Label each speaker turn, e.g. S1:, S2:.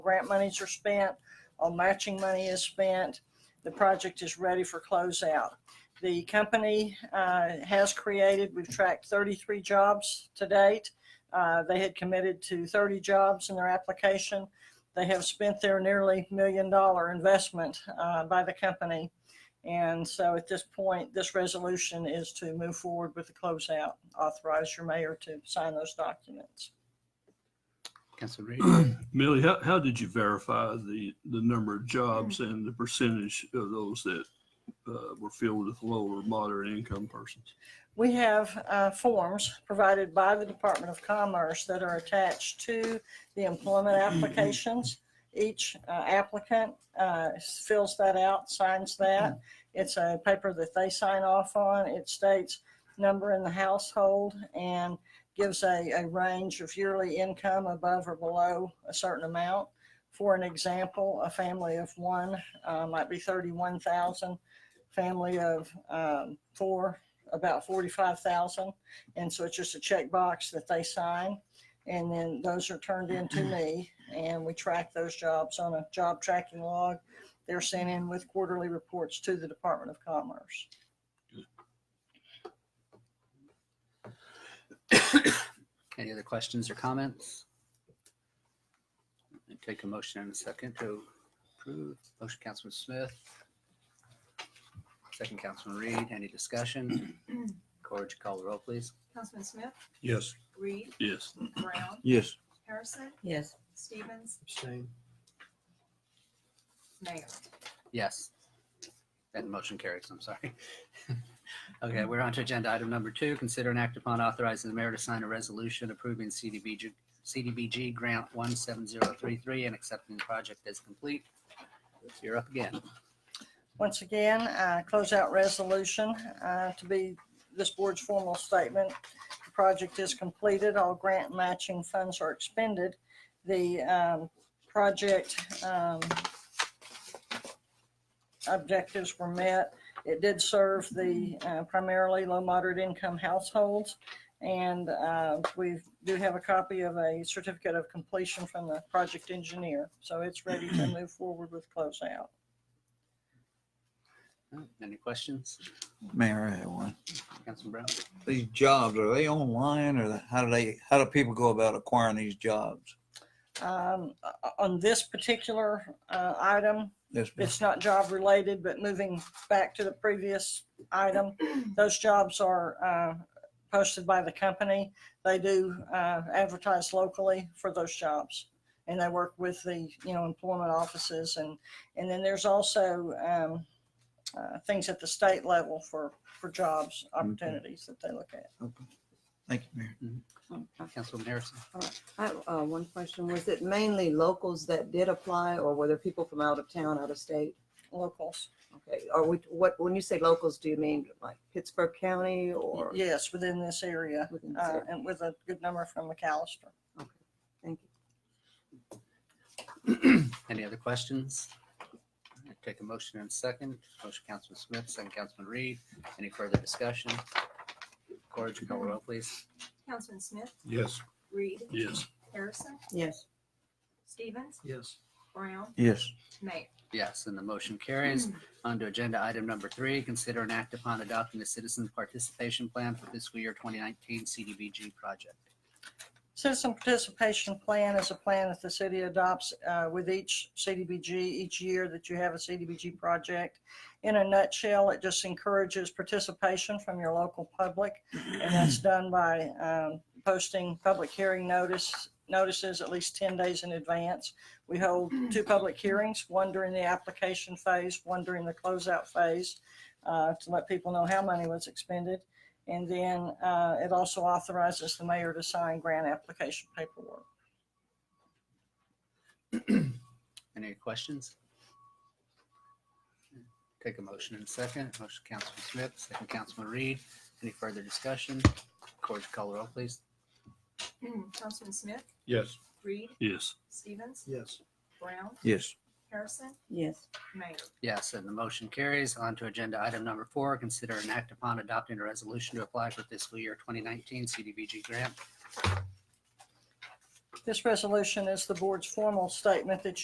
S1: grant monies are spent, all matching money is spent, the project is ready for closeout. The company uh, has created, we've tracked 33 jobs to date. Uh, They had committed to 30 jobs in their application. They have spent their nearly million-dollar investment uh, by the company. And so at this point, this resolution is to move forward with the closeout, authorize your mayor to sign those documents.
S2: Council Reed.
S3: Millie, how, how did you verify the, the number of jobs
S4: Mm.
S3: and the percentage of those that uh, were filled with low or moderate income persons?
S1: We have uh, forms provided by the Department of Commerce that are attached to the employment applications. Each uh, applicant uh, fills that out, signs that. It's a paper that they sign off on. It states number in the household and gives a, a range of yearly income above or below a certain amount. For an example, a family of one uh, might be 31,000, family of um, four about forty-five thousand. And so it's just a checkbox that they sign. And then those are turned in to me and we track those jobs on a job tracking log. They're sent in with quarterly reports to the Department of Commerce.
S2: Any other questions or comments? I'll Take a motion and a second to approve. Motion, Councilman Smith. Second, Councilman Reed. Any discussion? Corge, would you call the roll, please?
S5: Councilman Smith,
S4: Yes.
S5: Reed,
S3: Yes.
S5: Brown,
S4: Yes.
S5: Harrison,
S6: Yes,
S5: Stevens,
S4: Abstain.
S5: Mayor.
S2: Yes. That motion carries, I'm sorry. Okay, we're on to agenda item number two. Consider an act upon authorizing the mayor to sign a resolution approving CDBG, CDBG grant 17033 and accepting the project as complete. You're up again.
S1: Once again, uh, closeout resolution uh, to be this board's formal statement. The project is completed. All grant matching funds are expended. The um, project um, objectives were met. It did serve the uh, primarily low moderate income households. And uh, we do have a copy of a certificate of completion from the project engineer. So it's ready to move forward with closeout.
S2: Any questions?
S7: Mayor, I had one.
S2: Councilman Brown?
S7: These jobs, are they online or the- how do they, how do people go about acquiring these jobs?
S1: Um, o- On this particular uh, item,
S7: This,
S1: it's not job related, but moving back to the previous item, those jobs are uh, posted by the company. They do uh, advertise locally for those jobs. And they work with the, you know, employment offices and, and then there's also um, uh, things at the state level for, for jobs, opportunities that they look at.
S7: thank you, Mayor.
S2: Councilman Harrison?
S6: I have uh, one question. Was it mainly locals that did apply or were there people from out of town, out of state?
S1: Locals,
S6: Okay, are we, what, when you say locals, do you mean like Pittsburgh County or?
S1: yes, within this area.
S6: within the
S1: uh,
S6: state?
S1: and with a good number from McAllister.
S6: Thank you.
S2: Any other questions? I'll Take a motion and a second. Motion, Councilman Smith, second, Councilman Reed. Any further discussion? Corge, would you call the roll, please?
S5: Councilman Smith,
S4: Yes.
S5: Reed,
S3: Yes.
S5: Harrison,
S6: Yes,
S5: Stevens,
S4: Yes.
S5: Brown,
S7: Yes,
S5: Mayor.
S2: Yes, and the motion carries. On to agenda item number three, consider an act upon adopting the citizen participation plan for fiscal year 2019 CDBG project.
S1: Citizen participation plan is a plan that the city adopts uh, with each CDBG, each year that you have a CDBG project. In a nutshell, it just encourages participation from your local public, and that's done by um, posting public hearing notice, notices at least 10 days in advance. We hold two public hearings, one during the application phase, one during the closeout phase, uh, to let people know how money was expended. And then uh, it also authorizes the mayor to sign grant application paperwork.
S2: Any questions? Take a motion and a second. Motion, Councilman Smith, second, Councilman Reed. Any further discussion? Corge, would you call the roll, please?
S5: Councilman Smith,
S4: Yes.
S5: Reed,
S3: Yes.
S5: Stevens,
S4: Yes.
S5: Brown,
S7: yes,
S5: Harrison,
S6: yes,
S5: Mayor.
S2: Yes, and the motion carries. On to agenda item number four, consider an act upon adopting a resolution to apply for fiscal year 2019 CDBG grant.
S1: This resolution is the board's formal statement that you